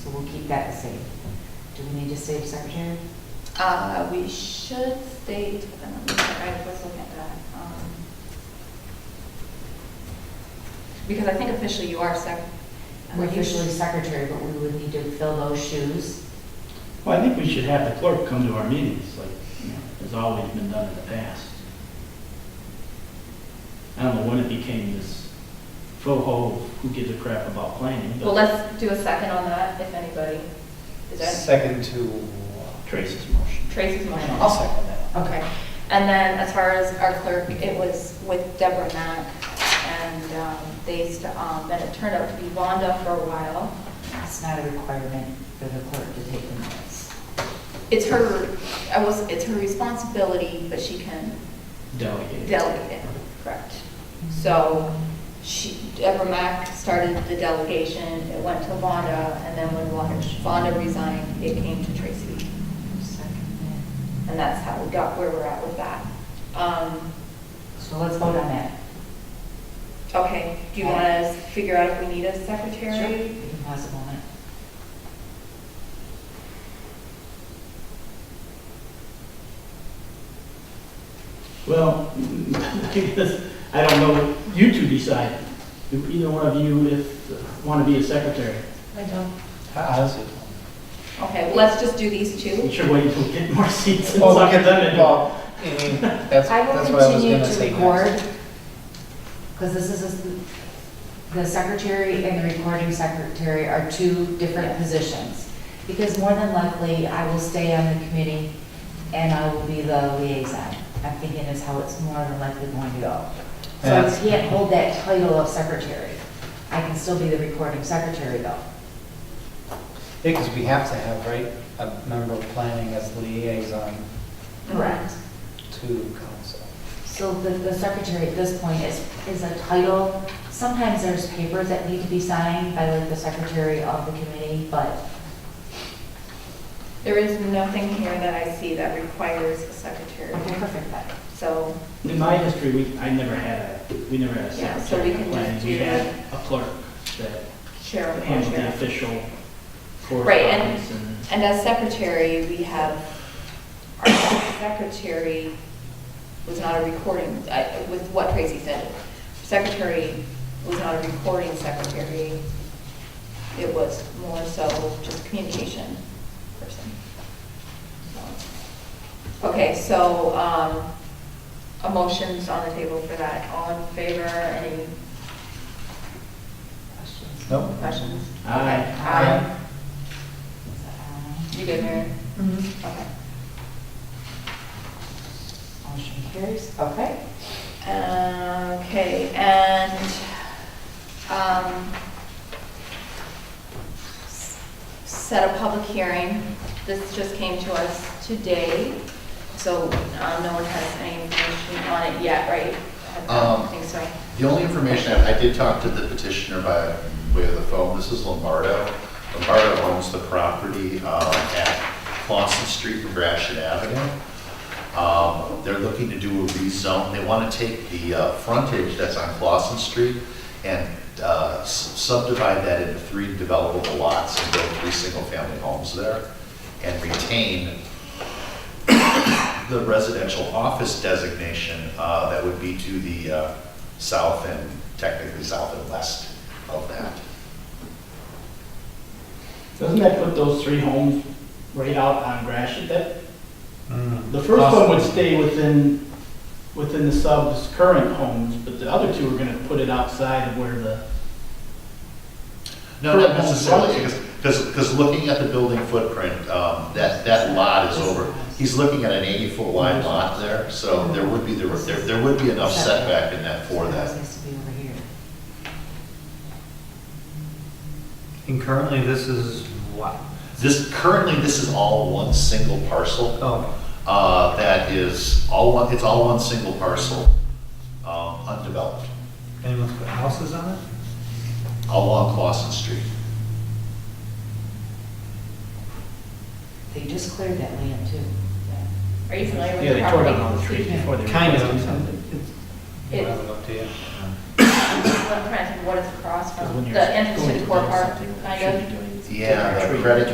we'll keep that the same. Do we need to save secretary? Uh, we should state, um, I was looking at that. um, Because I think officially you are sec. We're usually secretary, but we would need to fill those shoes. Well, I think we should have the clerk come to our meetings, like, you know, has always been done in the past. I don't know when it became this faux-ho, who gives a crap about planning, Well, but let's do a second on that, if anybody. Is that Second to, Trace's motion. Tracy's motion? I'll second that. Okay. And then as far as our clerk, it was with Deborah Mack, and um, they, st- um, then it turned out to be Vonda for a while. It's not a requirement for the clerk to take the minutes. It's her, I was, it's her responsibility, but she can Delegate. delegate it, correct? So she, Deborah Mack started the delegation, it went to Vonda, and then when Vonda- Vonda resigned, it came to Tracy. Second. And that's how we got where we're at with that. Um, So let's vote on that. Okay, do you want to figure out if we need a secretary? You can pause a moment. Well, I don't know, you two decide, Do either one of you if, want to be a secretary. I don't. How how is it? Okay, well, let's just do these We two. should wait until we get more seats and Well, Oh, look suck at it that. then. Well, I mean, that's, I will that's what I was continue gonna to say record, next. because this is, a- the secretary and the recording secretary are two different Yeah. positions. Because more than likely, I will stay on the committee and I will be the liaison. I'm thinking is how it's more than likely going to go. So I That's- can't hold that title of secretary. I can still be the recording secretary though. Because we have to have, right, a member of planning as liaison Correct. to council. So the, the secretary at this point is, is a title. Sometimes there's papers that need to be signed by like the secretary of the committee, but There is nothing here that I see that requires a secretary. okay, perfect then. So, In my history, we, I never had a, we never had a Yeah, so we secretary. can When just We do had a clerk that chair and handled the co-chair. official Right, and- correspondence and. And as secretary, we have, our secretary was not a recording, I- with what Tracy said, secretary was not a recording secretary. It was more so just communication person. So, Okay, so, um, a motion's on the table for that. All in favor, any Questions? Nope. questions? Okay. Aye. Aye. Is that aye? You good, Mary? Okay. Motion carries, okay. Uh, Okay, and, um, s- set a public hearing. This just came to us today, so um, no one has any information on it yet, right? I Um, don't think so. The only information, I I did talk to the petitioner by way of the phone, this is Lombardo. Lombardo owns the property um, at Clausen Street and Gratiot Avenue. Um, They're looking to do a rezone, they want to take the uh, frontage that's on Clausen Street and uh, s- subdivide that into three developable lots and build three single-family homes there and retain the residential office designation, uh, that would be to the uh, south and technically south and west of that. Doesn't that put those three homes right out on Gratiot? That, Mm. the first one would stay within, within the sub's current homes, but the other two are gonna put it outside of where the, No, not necessarily, because, because, because looking at the building footprint, um, that, that lot is over, he's looking at an eighty-foot wide lot there, so there would be, the- there, there would be enough setback in that for This that. needs to be over here. And currently, this is what? This, currently, this is all one single parcel. Oh, uh, that is all one, it's all one single parcel, um, undeveloped, anyone's put houses on it? all along Clausen Street. They just cleared that land too. Are you familiar with yeah, the they tore down property? all the trees before they. Kind of. replaced them. It- Whatever, up to you. What- I'm trying to think what it's across Because from, when you're the entrance going to the do core park, something, you kind should of? be doing- Yeah, Trick or the treat. credit